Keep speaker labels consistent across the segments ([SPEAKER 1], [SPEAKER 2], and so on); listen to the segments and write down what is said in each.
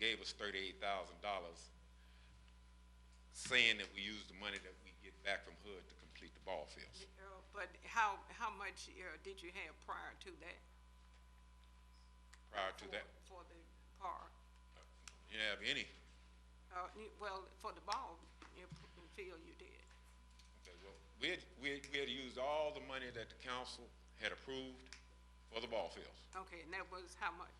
[SPEAKER 1] gave us thirty-eight thousand dollars, saying that we use the money that we get back from HUD to complete the ball fields.
[SPEAKER 2] Uh, But how, how much uh, did you have prior to that?
[SPEAKER 1] Prior to
[SPEAKER 2] for-
[SPEAKER 1] that,
[SPEAKER 2] For the park,
[SPEAKER 1] you didn't have any,
[SPEAKER 2] Uh, you- well, for the ball you know, field you did.
[SPEAKER 1] okay, well, we had, we had, we had used all the money that the council had approved for the ball fields.
[SPEAKER 2] Okay, and that was how much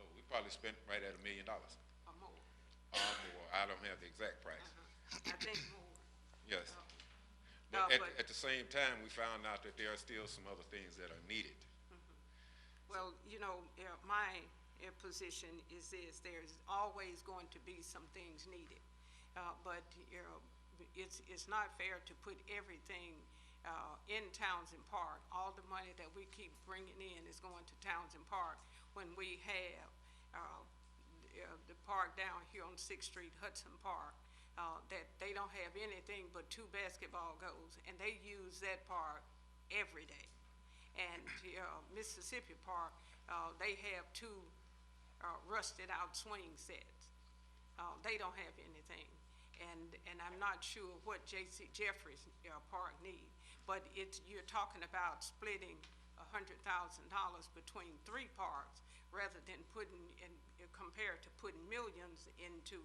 [SPEAKER 1] Oh, we probably spent right at a million dollars,
[SPEAKER 2] or more?
[SPEAKER 1] or more, I don't have the exact price,
[SPEAKER 2] Uh-huh. I think more.
[SPEAKER 1] yes.
[SPEAKER 2] Oh.
[SPEAKER 1] But
[SPEAKER 2] No,
[SPEAKER 1] at,
[SPEAKER 2] but-
[SPEAKER 1] at the same time, we found out that there are still some other things that are needed.
[SPEAKER 2] Well, you know, uh, my uh, position is this, there's always going to be some things needed. Uh, But, you know, it's, it's not fair to put everything uh, in Townsend Park. All the money that we keep bringing in is going to Townsend Park when we have uh, uh, the park down here on Sixth Street, Hudson Park, uh, that they don't have anything but two basketball goals, and they use that park every day. And uh, Mississippi Park, uh, they have two uh, rusted-out swing sets. Uh, They don't have anything. And, and I'm not sure what J.C. Jeffries uh, Park need, but it's, you're talking about splitting $100,000 between three parks rather than putting, and compared to putting millions into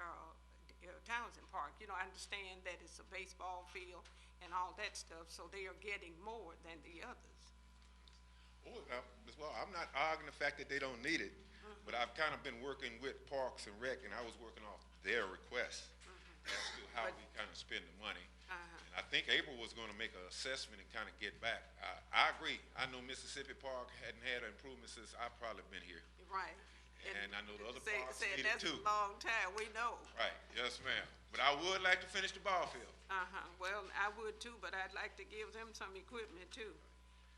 [SPEAKER 2] uh, uh, Townsend Park. You know, I understand that it's a baseball field and all that stuff, so they are getting more than the others.
[SPEAKER 1] Oh, uh, Ms. Well, I'm not arguing the fact that they don't need it, but I've kind of been working with Parks and Rec, and I was working off their requests as to how we kind of spend the money.
[SPEAKER 2] Uh-huh.
[SPEAKER 1] And I think April was going to make an assessment and kind of get back. I, I agree. I know Mississippi Park hadn't had an improvement since I've probably been here.
[SPEAKER 2] Right.
[SPEAKER 1] And I know the other
[SPEAKER 2] said-
[SPEAKER 1] parks
[SPEAKER 2] said
[SPEAKER 1] need it
[SPEAKER 2] That's a
[SPEAKER 1] too.
[SPEAKER 2] long time, we know.
[SPEAKER 1] Right, yes, ma'am. But I would like to finish the ball field.
[SPEAKER 2] Uh-huh, well, I would too, but I'd like to give them some equipment too,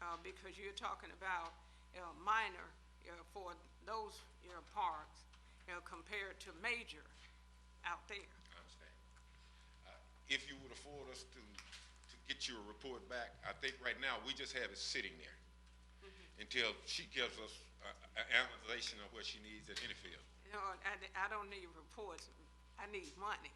[SPEAKER 2] uh, because you're talking about, uh, minor, uh, for those, you know, parks, you know, compared to major out there.
[SPEAKER 1] I understand. Uh, If you would afford us to, to get you a report back, I think right now, we just have it sitting there until she gives us an analysis of what she needs at any field.
[SPEAKER 2] You know, I, I don't need reports, I need money,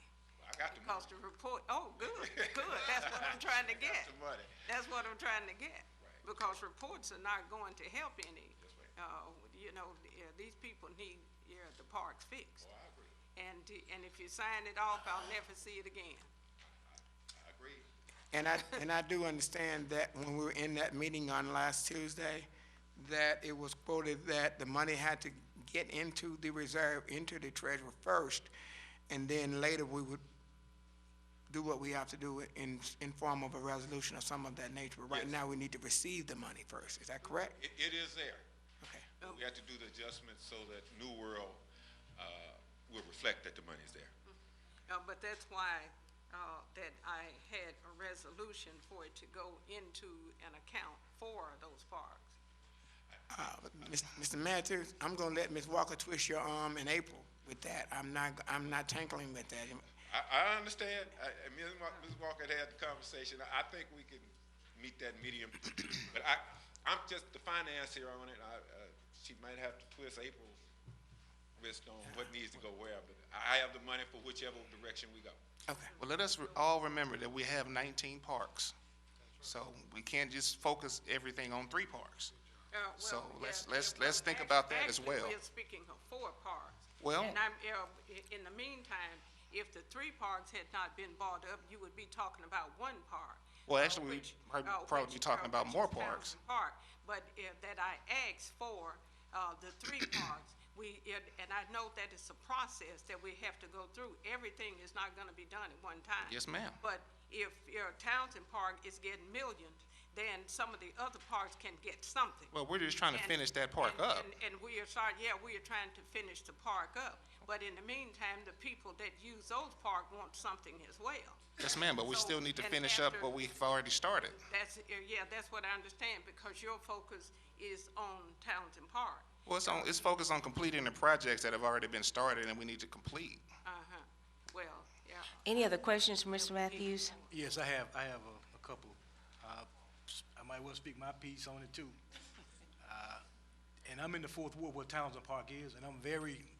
[SPEAKER 1] I got the money.
[SPEAKER 2] because the report, oh, good, good, that's what I'm trying to
[SPEAKER 1] I got
[SPEAKER 2] get.
[SPEAKER 1] the money.
[SPEAKER 2] That's what I'm trying to get.
[SPEAKER 1] Right.
[SPEAKER 2] Because reports are not going to help any.
[SPEAKER 1] Yes,
[SPEAKER 2] Uh, you know, yeah, these people need, yeah, the parks fixed.
[SPEAKER 1] Oh, I agree.
[SPEAKER 2] And, and if you sign it off, I'll never see it again.
[SPEAKER 1] I agree.
[SPEAKER 3] And I, and I do understand that when we were in that meeting on last Tuesday, that it was quoted that the money had to get into the reserve, into the treasurer first, and then later we would do what we have to do in, in form of a resolution or some of that nature. But right
[SPEAKER 1] Yes.
[SPEAKER 3] now, we need to receive the money first. Is that correct?
[SPEAKER 1] It, it is there.
[SPEAKER 3] Okay.
[SPEAKER 1] We have to do the adjustments so that New World uh, will reflect that the money is there.
[SPEAKER 2] Uh, but that's why, uh, that I had a resolution for it to go into an account for those parks.
[SPEAKER 3] Uh, but Mis- Mr. Mathews, I'm gonna let Ms. Walker twist your arm in April with that. I'm not, I'm not tinkling with that.
[SPEAKER 1] I, I understand. I, I mean, Ms. Wa- Ms. Walker had had the conversation. I, I think we can meet that medium. But I, I'm just the financier on it. I, uh, she might have to twist April's wrist on what needs to go where, but I have the money for whichever direction we go.
[SPEAKER 3] Okay.
[SPEAKER 4] Well, let us re- all remember that we have 19 parks. So we can't just focus everything on three parks.
[SPEAKER 2] Uh, well,
[SPEAKER 4] So let's-
[SPEAKER 2] yeah,
[SPEAKER 4] let's-
[SPEAKER 2] yeah,
[SPEAKER 4] let's
[SPEAKER 2] well,
[SPEAKER 4] think
[SPEAKER 2] act-
[SPEAKER 4] about that as
[SPEAKER 2] actually,
[SPEAKER 4] well.
[SPEAKER 2] we're speaking of four parks.
[SPEAKER 4] Well-
[SPEAKER 2] And I'm, uh, i- in the meantime, if the three parks had not been bought up, you would be talking about one park.
[SPEAKER 4] Well,
[SPEAKER 2] uh,
[SPEAKER 4] actually, we'd
[SPEAKER 2] which-
[SPEAKER 4] prob-
[SPEAKER 2] uh,
[SPEAKER 4] probably
[SPEAKER 2] which,
[SPEAKER 4] be talking
[SPEAKER 2] uh,
[SPEAKER 4] about
[SPEAKER 2] which
[SPEAKER 4] more
[SPEAKER 2] is Townsend
[SPEAKER 4] parks.
[SPEAKER 2] Park, but uh, that I asked for, uh, the three parks, we, it- and I know that it's a process that we have to go through. Everything is not gonna be done at one time.
[SPEAKER 4] Yes, ma'am.
[SPEAKER 2] But if your Townsend Park is getting millions, then some of the other parks can get something.
[SPEAKER 4] Well, we're just trying to
[SPEAKER 2] And-
[SPEAKER 4] finish that park
[SPEAKER 2] and-
[SPEAKER 4] up.
[SPEAKER 2] and- And we are sorry, yeah, we are trying to finish the park up, but in the meantime, the people that use those parks want something as well.
[SPEAKER 4] Yes, ma'am, but we
[SPEAKER 2] So,
[SPEAKER 4] still need to
[SPEAKER 2] and
[SPEAKER 4] finish up
[SPEAKER 2] after-
[SPEAKER 4] what we've already started.
[SPEAKER 2] That's, uh, yeah, that's what I understand, because your focus is on Townsend Park.
[SPEAKER 4] Well, it's on, it's focused on completing the projects that have already been started and we need to complete.
[SPEAKER 2] Uh-huh, well, yeah.
[SPEAKER 5] Any other questions, for Mr. Matthews?
[SPEAKER 6] Yes, I have, I have a, a couple. Uh, I might well speak my piece on it too. Uh, And I'm in the fourth ward where Townsend Park is, and I'm very